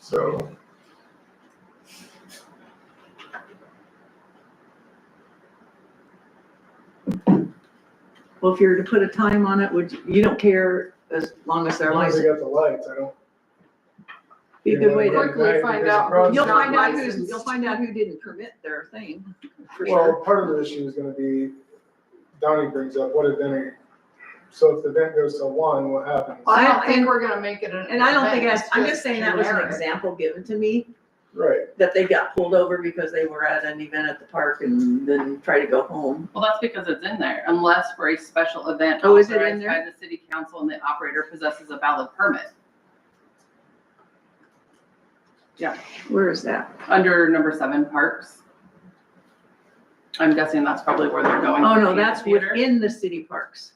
So. Well, if you were to put a time on it, would, you you don't care as long as they're As long as they licensed? got the lights, I don't. Be a good way to, Quickly find out who's you'll not find out who's, licensed. you'll find out who didn't permit their thing, for Well, sure. part of the issue is gonna be, Donnie brings up, what event, so if the event goes to one, what happens? Well, I I- don't and- think we're gonna make it an. And I don't think, event, that's it's I'm just saying that was an generic. example given to me, Right, that they got pulled over because they were at an event at the park and then tried to go home. Well, that's because it's in there, unless for a special event Oh, is it in authorized there? by the city council and the operator possesses a valid permit. Where is that? Under number seven, parks. I'm guessing that's probably where they're going. Oh, with no, the that's theater. within the city parks.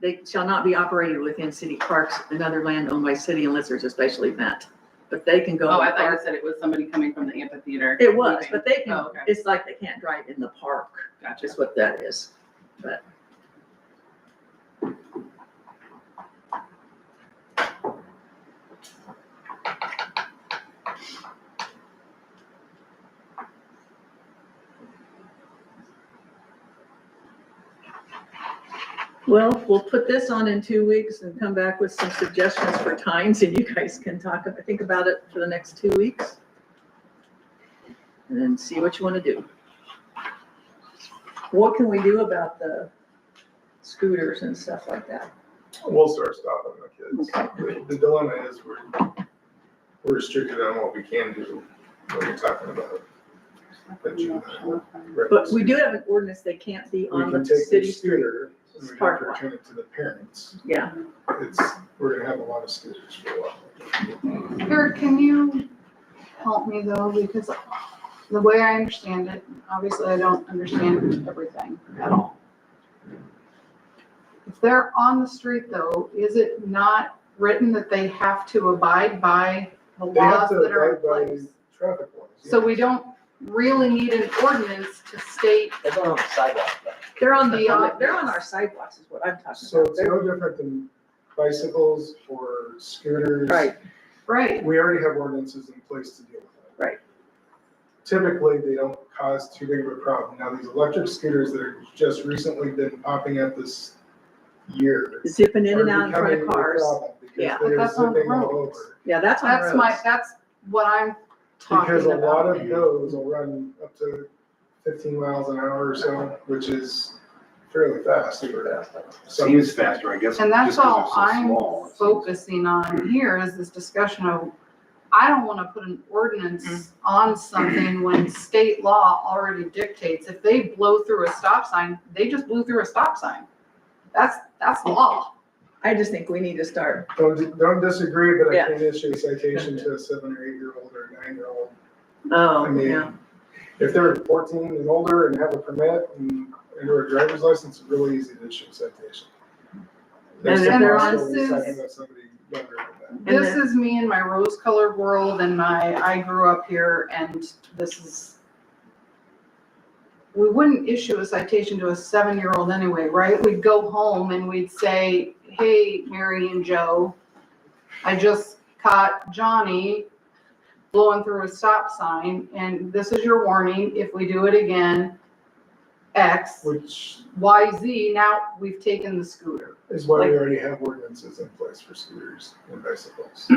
They shall not be operated within city parks, another land owned by city unless there's a special event. But they can go. Oh, to I the thought you park. said it was somebody coming from the amphitheater. It was, leaving. but they Oh, can, okay. it's like they can't drive in the park, Gotcha. is what that is. Well, we'll put this on in two weeks and come back with some suggestions for times and you guys can talk, ab- think about it for the next two weeks. And then see what you want to do. What can we do about the scooters and stuff like that? we'll start stopping the kids. The dilemma is we're, we're restricted on what we can do when you're talking about. But you- But we do have an ordinance, they can't be We on can take the the city street. scooter, and we have Park to lot. return it to the parents. Yeah, It's, we're gonna have a lot of scooters for a while. Eric, can you help me though, because the way I understand it, obviously I don't understand everything at all. If they're on the street though, is it not written that they have to abide by the They have laws to that are in abide by place? Traffic laws. So we don't really need an ordinance to state, They're going on the sidewalk, but they're on the, The public- op- they're on our sidewalks is what I'm talking So about. it's no different than bicycles or scooters. Right, right, We already have ordinances in place to deal with that. Right. Typically, they don't cause too big of a problem. Now, these electric scooters that are just recently been popping up this year. zipping in and are out in front becoming of a cars. problem Because Yeah. But they're that's on zipping all roads. over. Yeah, that's on that's my, roads. that's what I'm talking Because a about. lot of those will run up to fifteen miles an hour or so, which is fairly fast super for fast. some. Seems faster, I guess. And that's just 'cause all they're so I'm small, it seems. focusing on here is this discussion of, I don't wanna put an ordinance on something when state law already dictates, if they blow through a stop sign, they just blew through a stop sign. That's, that's law. I just think we need to start. Don't, don't disagree, but Yeah. I can issue a citation to a seven or eight year old or a nine year old. I Oh, yeah. mean, if they're fourteen and older and have a permit and, and or a driver's license, it's really easy to issue a citation. And if Next they're time on I saw we Sue's- talking about somebody younger than And This is me in my rose colored world and my, I grew up here and this is. We wouldn't issue a citation to a seven year old anyway, right? We'd go home and we'd say, hey, Mary and Joe, I just caught Johnny blowing through a stop sign and this is your warning. If we do it again, that, X, Which Y, Z, now we've taken the scooter. is why we Like- already have ordinances in place for scooters and bicycles.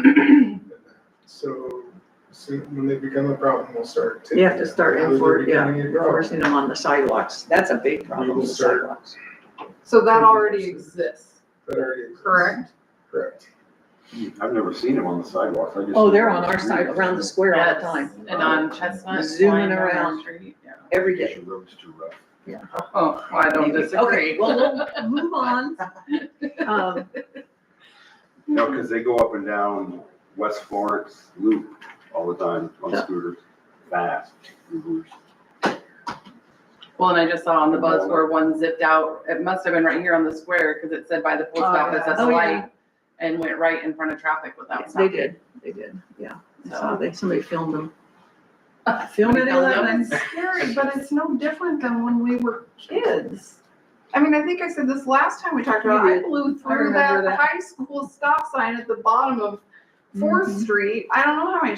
So, soon, when they become a problem, we'll start. You have to taking start them. Now that they're enfor- yeah, becoming a problem. enforcing them on the sidewalks. That's a big problem, the start. sidewalks. So that already exists, That already exists. correct? Correct. I've never seen them on the sidewalks, I just. Oh, they're on our side, around the square all the Yes, time, And on Chestnut. Zooming flying down our around. street, yeah. every Because day. your road's too rough. Oh, well, I don't Okay, disagree. well, we'll move on. Um, No, because they go up and down West Florence Loop all the time on Yeah. scooters, fast. Ubers. Well, and I just saw on the bus where one zipped out, it must have been right here on the square, because it said by the post Oh, office yeah. as a Oh, yeah. light, and went right in front of traffic without They stopping. did, they did, yeah. I saw So- that somebody filmed them. Film at Somebody filmed eleven. scary, but it's no different than when we were kids. I mean, I think I said this last time we talked about, You I did. blew I through remember that that. high school stop sign at the bottom of Fourth Mhm. Street. I don't know how many